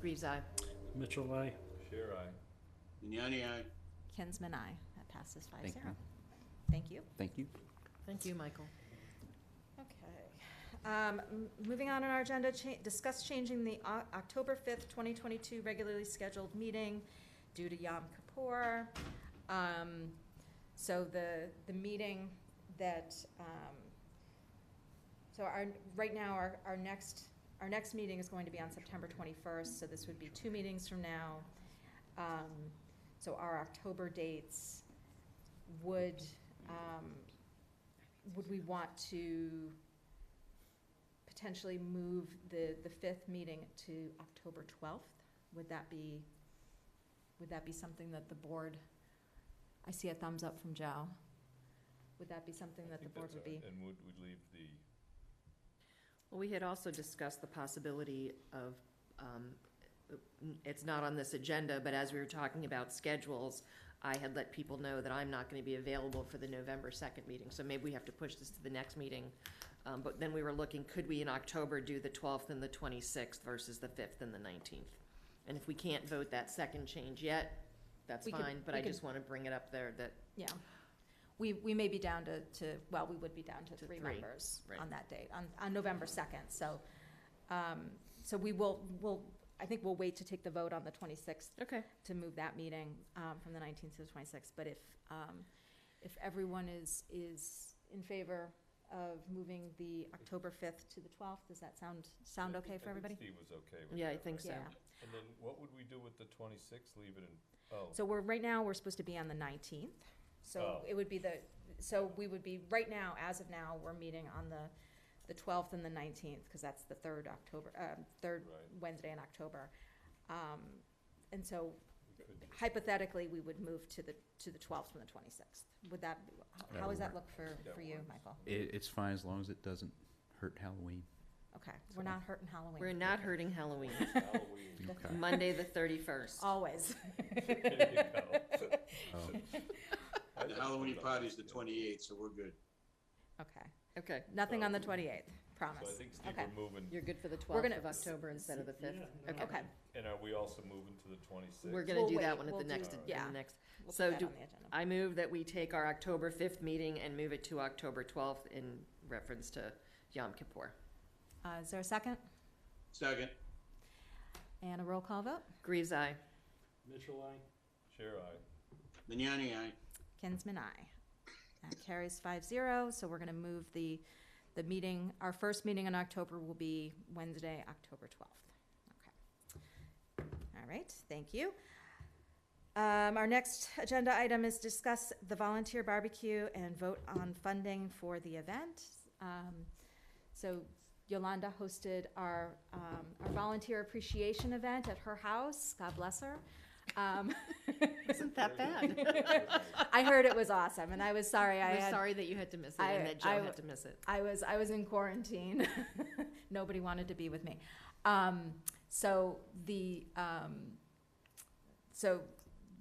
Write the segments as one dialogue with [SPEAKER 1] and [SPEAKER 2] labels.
[SPEAKER 1] Reeves, aye.
[SPEAKER 2] Mitchell, I.
[SPEAKER 3] Sure, I.
[SPEAKER 4] Vignani, aye.
[SPEAKER 5] Kinsman, aye. That passes five
[SPEAKER 6] Thank
[SPEAKER 5] zero.
[SPEAKER 6] you.
[SPEAKER 5] Thank you.
[SPEAKER 6] Thank you.
[SPEAKER 1] Thank you, Michael.
[SPEAKER 5] Okay. Um, m- Moving on in our agenda, cha- discuss changing the O- October 5th, 2022 regularly scheduled meeting due to Yom Kippur. Um, So the, the meeting that, um, so our, right now, our, our next, our next meeting is going to be on September 21st, so this would be two meetings from now. Um, So our October dates would, um, would we want to potentially move the, the fifth meeting to October twelfth? Would that be, would that be something that the board, I see a thumbs up from Joe. Would that be something
[SPEAKER 3] I
[SPEAKER 5] that the
[SPEAKER 3] think
[SPEAKER 5] board
[SPEAKER 3] that's
[SPEAKER 5] would
[SPEAKER 3] all
[SPEAKER 5] be?
[SPEAKER 3] right. And would, would leave the,
[SPEAKER 1] Well, we had also discussed the possibility of, um, it's not on this agenda, but as we were talking about schedules, I had let people know that I'm not gonna be available for the November second meeting, so maybe we have to push this to the next meeting. Um, but then we were looking, could we in October do the twelfth and the twenty-sixth versus the fifth and the nineteenth? And if we can't vote that second change yet, that's
[SPEAKER 5] We could-
[SPEAKER 1] fine, but
[SPEAKER 5] we
[SPEAKER 1] I
[SPEAKER 5] could-
[SPEAKER 1] just wanna bring it up there that
[SPEAKER 5] Yeah. We, we may be down to, to, well, we would be down to
[SPEAKER 1] To
[SPEAKER 5] three
[SPEAKER 1] three,
[SPEAKER 5] members
[SPEAKER 1] right.
[SPEAKER 5] on that date, on, on November second, so, um, so we will, we'll, I think we'll wait to take the vote on the twenty-sixth
[SPEAKER 1] Okay.
[SPEAKER 5] to move that meeting, um, from the nineteenth to the twenty-sixth, but if, um, if everyone is, is in favor of moving the October fifth to the twelfth, does that sound, sound
[SPEAKER 3] I
[SPEAKER 5] okay
[SPEAKER 3] think-
[SPEAKER 5] for
[SPEAKER 3] I think
[SPEAKER 5] everybody?
[SPEAKER 3] Steve was okay with that.
[SPEAKER 1] Yeah, I think so.
[SPEAKER 5] Yeah,
[SPEAKER 3] right? And then what would we do with the twenty-sixth? Leave it in, oh,
[SPEAKER 5] so we're, right now, we're supposed to be on the nineteenth, so
[SPEAKER 3] Oh.
[SPEAKER 5] it would be the, so we would be, right now, as of now, we're meeting on the, the twelfth and the nineteenth, because that's the third October, um, third
[SPEAKER 3] right,
[SPEAKER 5] Wednesday in October. Um, and so
[SPEAKER 3] we could,
[SPEAKER 5] hypothetically, we would move to the, to the twelfth from the twenty-sixth. Would that,
[SPEAKER 6] That
[SPEAKER 5] how
[SPEAKER 6] would
[SPEAKER 5] does that
[SPEAKER 6] work.
[SPEAKER 5] look for,
[SPEAKER 3] That
[SPEAKER 5] for you,
[SPEAKER 3] works.
[SPEAKER 5] Michael?
[SPEAKER 6] It, it's fine as long as it doesn't hurt Halloween.
[SPEAKER 5] Okay, we're not hurting Halloween.
[SPEAKER 1] we're not hurting Halloween,
[SPEAKER 3] Halloween.
[SPEAKER 6] Okay.
[SPEAKER 1] Monday the thirty-first.
[SPEAKER 5] Always.
[SPEAKER 3] There you go.
[SPEAKER 6] Oh,
[SPEAKER 3] I
[SPEAKER 4] The
[SPEAKER 3] just
[SPEAKER 4] Halloween
[SPEAKER 3] put it on
[SPEAKER 4] party's the
[SPEAKER 3] yeah.
[SPEAKER 4] twenty-eighth, so we're good.
[SPEAKER 5] Okay,
[SPEAKER 1] Okay.
[SPEAKER 5] nothing on the
[SPEAKER 3] So-
[SPEAKER 5] twenty-eighth,
[SPEAKER 3] So I
[SPEAKER 5] promise.
[SPEAKER 3] think, Steve,
[SPEAKER 5] Okay.
[SPEAKER 3] we're moving,
[SPEAKER 1] You're good for the
[SPEAKER 5] We're
[SPEAKER 1] 12th
[SPEAKER 5] gonna-
[SPEAKER 1] of October instead of the 5th? Okay.
[SPEAKER 5] Okay,
[SPEAKER 3] and are we also moving to the twenty-sixth?
[SPEAKER 1] We're gonna
[SPEAKER 5] We'll
[SPEAKER 1] do that
[SPEAKER 5] wait,
[SPEAKER 1] one at
[SPEAKER 5] we'll
[SPEAKER 1] the
[SPEAKER 5] do-
[SPEAKER 1] next, in
[SPEAKER 5] yeah.
[SPEAKER 1] the next.
[SPEAKER 5] we'll put
[SPEAKER 1] So
[SPEAKER 5] that
[SPEAKER 1] do-
[SPEAKER 5] on the agenda.
[SPEAKER 1] I move that we take our October 5th meeting and move it to October 12th in reference to Yom Kippur.
[SPEAKER 5] Uh, is there a second?
[SPEAKER 4] Second,
[SPEAKER 5] And a roll call vote?
[SPEAKER 1] Greaves, aye.
[SPEAKER 2] Mitchell, I.
[SPEAKER 3] Sure, I.
[SPEAKER 4] Vignani, aye.
[SPEAKER 5] Kinsman, aye. That carries five zero, so we're gonna move the, the meeting, our first meeting in October will be Wednesday, October twelfth. Okay. All right, thank you. Um, our next agenda item is discuss the volunteer barbecue and vote on funding for the event. Um, so Yolanda hosted our, um, our volunteer appreciation event at her house, God bless her. Um,
[SPEAKER 1] Isn't that bad?
[SPEAKER 5] I heard it was awesome, and I was sorry I
[SPEAKER 1] We're
[SPEAKER 5] had.
[SPEAKER 1] sorry that you had to miss it and
[SPEAKER 5] I-
[SPEAKER 1] that Joe
[SPEAKER 5] I-
[SPEAKER 1] had to miss it.
[SPEAKER 5] I was I was in quarantine. Nobody wanted to be with me. Um, so the um, so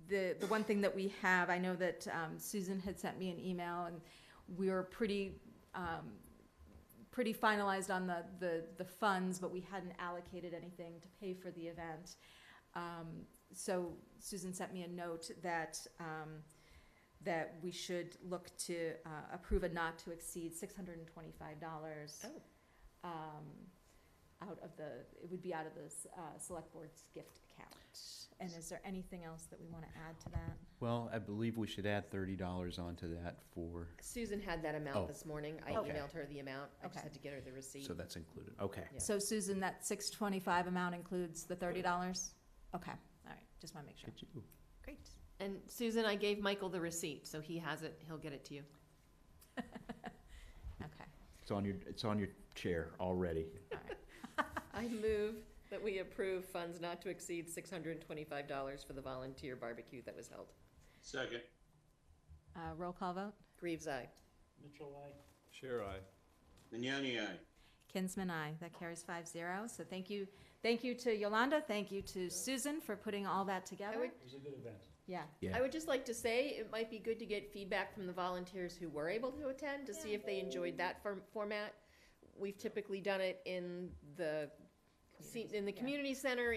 [SPEAKER 5] the the one thing that we have, I know that um, Susan had sent me an email, and we were pretty. Um, pretty finalized on the, the, the funds, but we hadn't allocated anything to pay for the event. Um, so Susan sent me a note that, um, that we should look to, uh, approve a not to exceed six hundred and twenty-five dollars.
[SPEAKER 1] Oh.
[SPEAKER 5] Um, out of the, it would be out of the, s- uh, select board's gift account. And is there anything else that we wanna add to that?
[SPEAKER 6] Well, I believe we should add thirty dollars onto that for,
[SPEAKER 1] Susan had that
[SPEAKER 6] Oh,
[SPEAKER 1] amount this morning. I
[SPEAKER 6] okay.
[SPEAKER 1] emailed her the amount. I
[SPEAKER 5] Okay.
[SPEAKER 1] just had to get her the receipt.
[SPEAKER 6] so that's included. Okay.
[SPEAKER 1] Yeah.
[SPEAKER 5] So Susan, that six twenty-five amount includes the thirty dollars? Okay, all right, just wanna make sure.
[SPEAKER 6] Good you.
[SPEAKER 5] Great.
[SPEAKER 1] And Susan, I gave Michael the receipt, so he has it. He'll get it to you.
[SPEAKER 5] Okay,
[SPEAKER 6] It's on your, it's on your chair already.
[SPEAKER 5] all right.
[SPEAKER 1] I move that we approve funds not to exceed $625 for the volunteer barbecue that was held.
[SPEAKER 4] Second,
[SPEAKER 5] Uh, roll call vote?
[SPEAKER 1] Greaves, aye.
[SPEAKER 2] Mitchell, I.
[SPEAKER 3] Sure, I.
[SPEAKER 4] Vignani, aye.
[SPEAKER 5] Kinsman, aye. That carries five zero. So thank you, thank you to Yolanda, thank you to Susan for putting all that
[SPEAKER 1] I
[SPEAKER 5] together.
[SPEAKER 1] would
[SPEAKER 2] It was a good event.
[SPEAKER 5] Yeah,
[SPEAKER 6] Yeah.
[SPEAKER 1] I would just like to say, it might be good to get feedback from the volunteers who were able to attend to see if they enjoyed that form- format. We've typically done it in the, se- in the community center,